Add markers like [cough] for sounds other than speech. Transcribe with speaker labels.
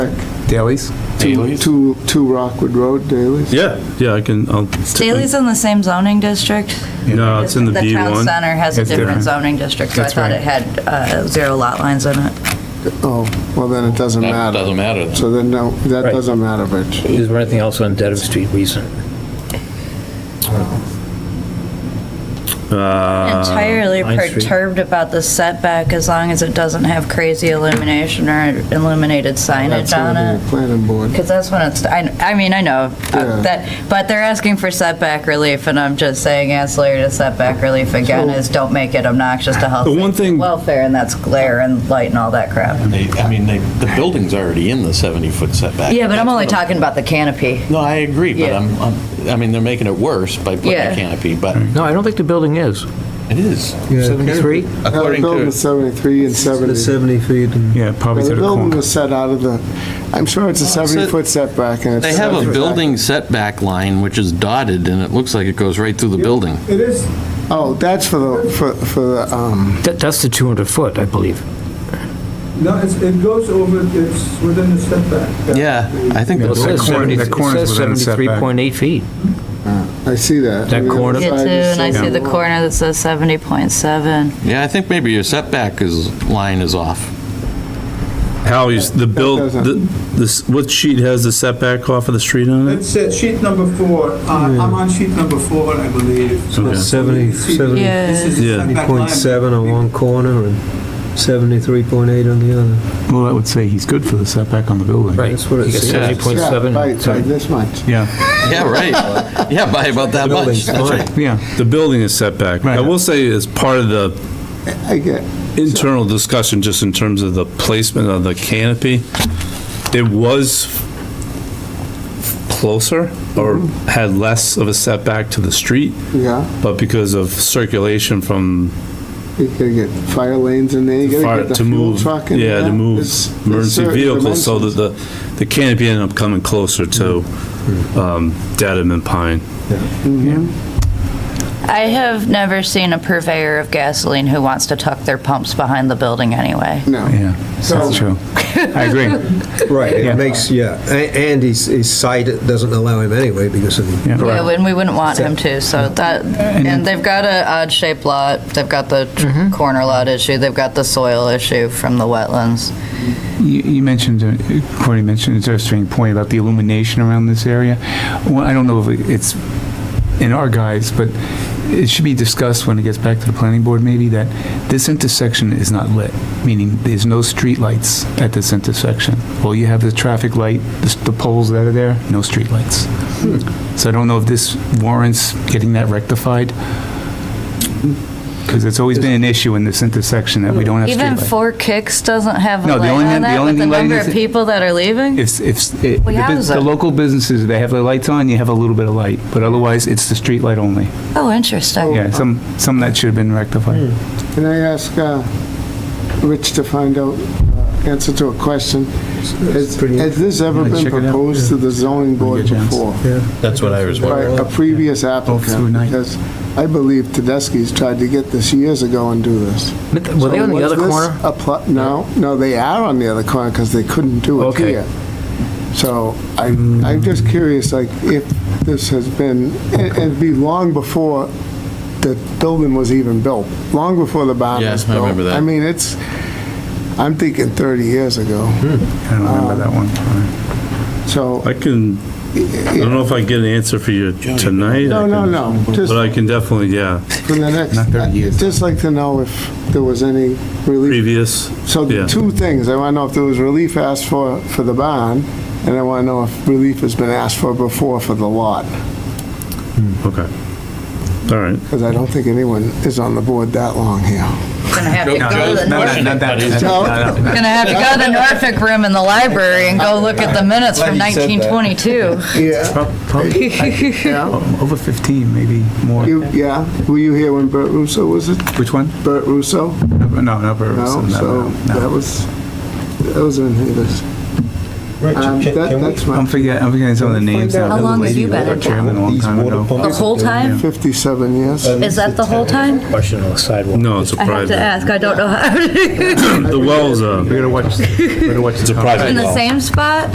Speaker 1: Daley's?
Speaker 2: Two,
Speaker 3: Daley's?
Speaker 2: two, two Rockwood Road dailies?
Speaker 3: Yeah, yeah, I can, I'll.
Speaker 4: Staley's in the same zoning district?
Speaker 3: No, it's in the
Speaker 4: The town
Speaker 3: B1.
Speaker 4: center has a
Speaker 1: It's
Speaker 4: different
Speaker 1: different.
Speaker 4: zoning district, so I
Speaker 1: That's
Speaker 4: thought
Speaker 1: right.
Speaker 4: it had uh, zero lot lines in it.
Speaker 2: Oh, well, then it doesn't
Speaker 5: That
Speaker 2: matter.
Speaker 5: doesn't matter.
Speaker 2: So then, no, that
Speaker 6: Right.
Speaker 2: doesn't matter, Rich.
Speaker 6: Is there anything else on Dedham Street recent?
Speaker 3: Uh,
Speaker 4: Entirely
Speaker 6: Pine Street.
Speaker 4: perturbed about the setback as long as it doesn't have crazy illumination or illuminated signage
Speaker 2: That's
Speaker 4: on
Speaker 2: gonna be
Speaker 4: it.
Speaker 2: the planning board.
Speaker 4: Because that's when it's, I, I mean, I know
Speaker 2: Yeah.
Speaker 4: uh, that, but they're asking for setback relief, and I'm just saying ancillary to setback relief again
Speaker 2: So-
Speaker 4: is don't make it obnoxious to health,
Speaker 3: The one
Speaker 4: safety,
Speaker 3: thing-
Speaker 4: welfare, and that's glare and light and all that crap.
Speaker 5: They, I mean, they, the building's already in the 70-foot setback.
Speaker 4: Yeah, but I'm only talking about the canopy.
Speaker 5: No, I agree, but
Speaker 4: Yeah.
Speaker 5: I'm, I'm- I mean, they're making it worse by putting
Speaker 4: Yeah.
Speaker 5: a canopy, but
Speaker 6: No, I don't think the building is.
Speaker 5: it is.
Speaker 6: Seventy-three?
Speaker 2: Now, the
Speaker 5: According
Speaker 2: building
Speaker 5: to,
Speaker 2: was 73 and 70.
Speaker 7: feet. and-
Speaker 3: Yeah, probably
Speaker 2: The
Speaker 3: to the
Speaker 2: building
Speaker 3: corner.
Speaker 2: was set out of the, I'm sure it's a
Speaker 5: Well, Oh, it's a-
Speaker 2: 70-foot setback and it's.
Speaker 5: they have a
Speaker 2: 70
Speaker 5: building setback line which is dotted, and it looks like it goes right through the building.
Speaker 7: It is,
Speaker 2: Oh, that's for the, for, for the, um,
Speaker 6: That, that's the 200 foot, I believe.
Speaker 7: no, it's- it goes over, it's within the setback.
Speaker 5: Yeah, I think
Speaker 6: It
Speaker 5: that's
Speaker 6: says
Speaker 3: corner-
Speaker 6: 70
Speaker 3: that corner's
Speaker 6: it says
Speaker 3: within a setback.
Speaker 6: 73.8 feet.
Speaker 2: I see that.
Speaker 6: That
Speaker 2: And the other
Speaker 6: corner?
Speaker 4: Yeah, too,
Speaker 2: side is
Speaker 4: and I see the
Speaker 2: 71.
Speaker 4: corner that says 70.7.
Speaker 5: Yeah, I think maybe your setback is, line is off.
Speaker 3: Hal, you s- the build,
Speaker 2: doesn't-
Speaker 3: the- this, what sheet has the setback off of the street on it?
Speaker 7: It's uh, sheet number four, Uh, I'm on sheet number four, I believe. So
Speaker 3: Okay.
Speaker 7: you
Speaker 8: 70,
Speaker 7: see,
Speaker 8: 70,
Speaker 4: Yeah.
Speaker 7: this is the
Speaker 3: Yeah.
Speaker 7: setback line.
Speaker 8: 70.7 on oh one corner and 73.8 on the other.
Speaker 1: Well, that would say he's good for the setback on the building.
Speaker 8: That's what it
Speaker 6: You got
Speaker 8: says.
Speaker 2: Yeah, right, right,
Speaker 6: 70.7.
Speaker 2: this much.
Speaker 1: Yeah,
Speaker 5: Yeah, right. Yeah, by about that much.
Speaker 8: Building's
Speaker 5: That's
Speaker 8: fine.
Speaker 5: right.
Speaker 1: yeah,
Speaker 3: The building is setback. I
Speaker 1: Right.
Speaker 3: will say as part of the
Speaker 2: I get,
Speaker 3: internal discussion, just in terms of the placement of the canopy, it was closer or had less of a setback to the street,
Speaker 2: yeah,
Speaker 3: but because of circulation from
Speaker 2: you gotta get fire lanes in there, you gotta
Speaker 3: fire-
Speaker 2: get the
Speaker 3: to
Speaker 2: fuel
Speaker 3: move,
Speaker 2: truck in there.
Speaker 3: yeah, to move
Speaker 2: There's- there's
Speaker 3: emergency
Speaker 2: certain
Speaker 3: vehicles, so
Speaker 2: dimensions.
Speaker 3: that the, the canopy ended up coming closer to
Speaker 2: Mm-hmm.
Speaker 3: um, Dedham and Pine.
Speaker 4: I have never seen a purveyor of gasoline who wants to tuck their pumps behind the building anyway.
Speaker 2: No,
Speaker 1: yeah,
Speaker 2: So-
Speaker 1: that's true. I agree,
Speaker 8: Right,
Speaker 1: Yeah.
Speaker 8: it makes, yeah, A- and his, his site doesn't allow him anyway because of the.
Speaker 1: Yeah.
Speaker 4: Yeah, and we wouldn't want him to, so that, and they've got a odd shaped lot, they've got the tr- corner lot issue, they've got the soil issue from the wetlands.
Speaker 1: You, you mentioned, uh, Courtney mentioned an interesting point about the illumination around this area. Well, I don't know if it's in our guise, but it should be discussed when it gets back to the planning board, maybe, that this intersection is not lit, meaning there's no streetlights at this intersection. Well, you have the traffic light, the s- the poles that are there, no streetlights. So I don't know if this warrants getting that rectified, because it's always been an issue in this intersection that we don't have
Speaker 4: Even
Speaker 1: streetlights.
Speaker 4: Four Kicks doesn't have a
Speaker 1: No, the
Speaker 4: light
Speaker 1: only
Speaker 4: on
Speaker 1: thing- the
Speaker 4: that
Speaker 1: only
Speaker 4: with the
Speaker 1: thing lighting
Speaker 4: number
Speaker 1: is
Speaker 4: of
Speaker 1: it-
Speaker 4: people that are leaving?
Speaker 1: If, if, it-
Speaker 4: Well,
Speaker 1: the
Speaker 4: how
Speaker 1: bus-
Speaker 4: is it?
Speaker 1: the local businesses, they have their lights on, you have a little bit of light, but otherwise, it's the street light only.
Speaker 4: Oh, interesting.
Speaker 1: Yeah, some, some that should have been rectified.
Speaker 2: can I ask, uh, Rich to find out, uh, answer to a question? Has,
Speaker 8: pretty-
Speaker 2: has this ever
Speaker 1: Yeah,
Speaker 2: been
Speaker 1: check it out.
Speaker 2: proposed to the zoning board
Speaker 1: get a chance.
Speaker 2: before?
Speaker 5: That's what I was
Speaker 2: By a previous
Speaker 1: through
Speaker 2: applicant?
Speaker 1: night.
Speaker 2: Because I believe Tedeschi's tried to get this years ago and do this.
Speaker 6: But th- Were they on the
Speaker 2: Was
Speaker 6: other
Speaker 2: this
Speaker 6: corner?
Speaker 2: a pl- No, no, they are on the other corner because they couldn't do it
Speaker 6: Okay.
Speaker 2: here. So I, I'm just curious, like, if this has been, it- it'd be long before the building was even built, long before the barn
Speaker 5: Yeah,
Speaker 2: was
Speaker 5: I
Speaker 2: built.
Speaker 5: remember that.
Speaker 2: I mean, it's, I'm thinking 30 years ago,
Speaker 5: Hmm.
Speaker 1: I don't remember that one.
Speaker 2: so,
Speaker 3: I can, I don't know if I can get an answer for you tonight.
Speaker 2: no,
Speaker 3: I
Speaker 2: no,
Speaker 3: can-
Speaker 2: no, just
Speaker 3: But I can definitely, yeah,
Speaker 2: for the next,
Speaker 1: Not 30 years.
Speaker 2: I'd just like to know if there was any relief
Speaker 3: previous,
Speaker 2: So
Speaker 3: Yeah.
Speaker 2: the two things, I want to know if there was relief asked for, for the bond, and I want to know if relief has been asked for before for the lot,
Speaker 3: okay. All right.
Speaker 2: because I don't think anyone is on the board that long here.
Speaker 4: Gonna have to go to the Norfolk
Speaker 1: Not that-
Speaker 2: No.
Speaker 1: not that-
Speaker 4: Gonna have to go to the Norfolk room in the library and go look at the minutes from 1922.
Speaker 2: Yeah.
Speaker 1: prob- probably uh, Over 15, maybe more.
Speaker 2: You, yeah, were you here when Bert Russo was it?
Speaker 1: Which one?
Speaker 2: Bert Russo?
Speaker 1: No, no, Upper
Speaker 2: No,
Speaker 1: Wilson,
Speaker 2: so
Speaker 1: no,
Speaker 2: that
Speaker 1: no.
Speaker 2: was, that was in his. Um,
Speaker 8: Richard,
Speaker 2: that-
Speaker 8: can we?
Speaker 2: That's
Speaker 1: I'm
Speaker 2: my
Speaker 1: forgetting, I'm forgetting some of the names.
Speaker 8: How
Speaker 1: now. The
Speaker 4: long have
Speaker 1: lady
Speaker 4: you
Speaker 1: was
Speaker 4: been
Speaker 1: our
Speaker 4: in
Speaker 1: Chairman a
Speaker 7: oh
Speaker 1: long
Speaker 8: These
Speaker 1: time
Speaker 8: water
Speaker 1: ago.
Speaker 8: pumps
Speaker 4: The whole
Speaker 8: that
Speaker 4: time?
Speaker 2: 57 years.
Speaker 8: are-
Speaker 4: Is that the whole time?
Speaker 6: Question on the sidewalk.
Speaker 3: No, it's a
Speaker 4: I have to
Speaker 3: private,
Speaker 4: ask, I don't know how,
Speaker 3: [coughs] the well's uh, a,
Speaker 1: We gotta watch, we gotta watch.
Speaker 3: it's a private well.
Speaker 4: in the same spot?